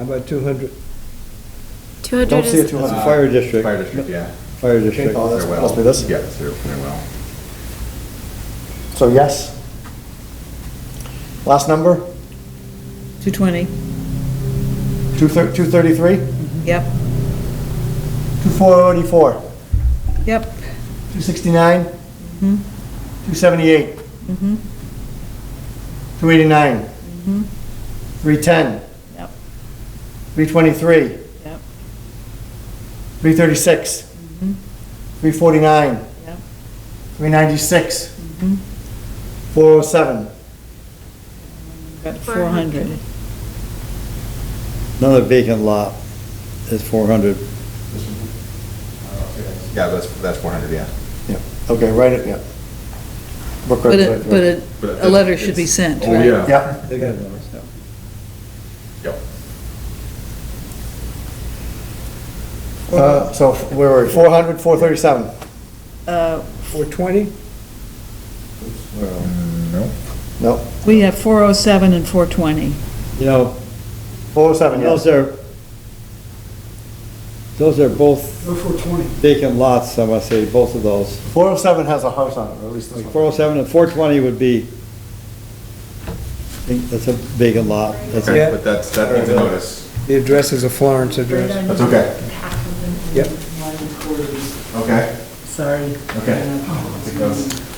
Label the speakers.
Speaker 1: How about 200?
Speaker 2: 200
Speaker 3: Don't see a
Speaker 2: is,
Speaker 3: 200.
Speaker 4: Uh,
Speaker 1: Fire district.
Speaker 4: Fire district, yeah.
Speaker 1: Fire district.
Speaker 3: Oh, that's-
Speaker 4: Their well.
Speaker 3: must be this?
Speaker 4: Yeah, it's their, their well.
Speaker 3: So yes. Last number,
Speaker 5: 220,
Speaker 3: two thir- 233,
Speaker 5: yep,
Speaker 3: 244,
Speaker 5: yep,
Speaker 3: 269, 278, 289, 310,
Speaker 5: yep,
Speaker 3: 323,
Speaker 5: yep,
Speaker 3: 336, 349,
Speaker 5: yep,
Speaker 3: 396, 407.
Speaker 5: got 400.
Speaker 1: Another vacant lot is 400.
Speaker 4: Yeah, that's, that's four hundred, yeah.
Speaker 3: Yeah, okay, right, it- yeah. Brook
Speaker 5: But
Speaker 3: Road's
Speaker 5: a,
Speaker 3: right
Speaker 5: but
Speaker 3: there.
Speaker 5: a, a letter should be sent,
Speaker 4: Oh,
Speaker 5: right?
Speaker 4: yeah.
Speaker 3: Yeah,
Speaker 1: They got those, yeah.
Speaker 4: Yep.
Speaker 3: Uh, so where were we, 400, 437?
Speaker 5: Uh,
Speaker 1: 420?
Speaker 4: No.
Speaker 3: No,
Speaker 5: We have 407 and 420.
Speaker 1: You know,
Speaker 3: 407, yes.
Speaker 1: those are, those are both
Speaker 6: Go for 20.
Speaker 1: vacant lots, I must say, both of those.
Speaker 3: 407 has a house on it, or at least this
Speaker 1: Like
Speaker 3: one.
Speaker 1: 407 and 420 would be, I think that's a vacant lot. That's a-
Speaker 4: Okay, but that's, that needs a notice.
Speaker 7: The address is a Florence address.
Speaker 4: That's okay.
Speaker 7: Yep.
Speaker 4: Okay,
Speaker 8: Sorry.
Speaker 4: okay. Take notes.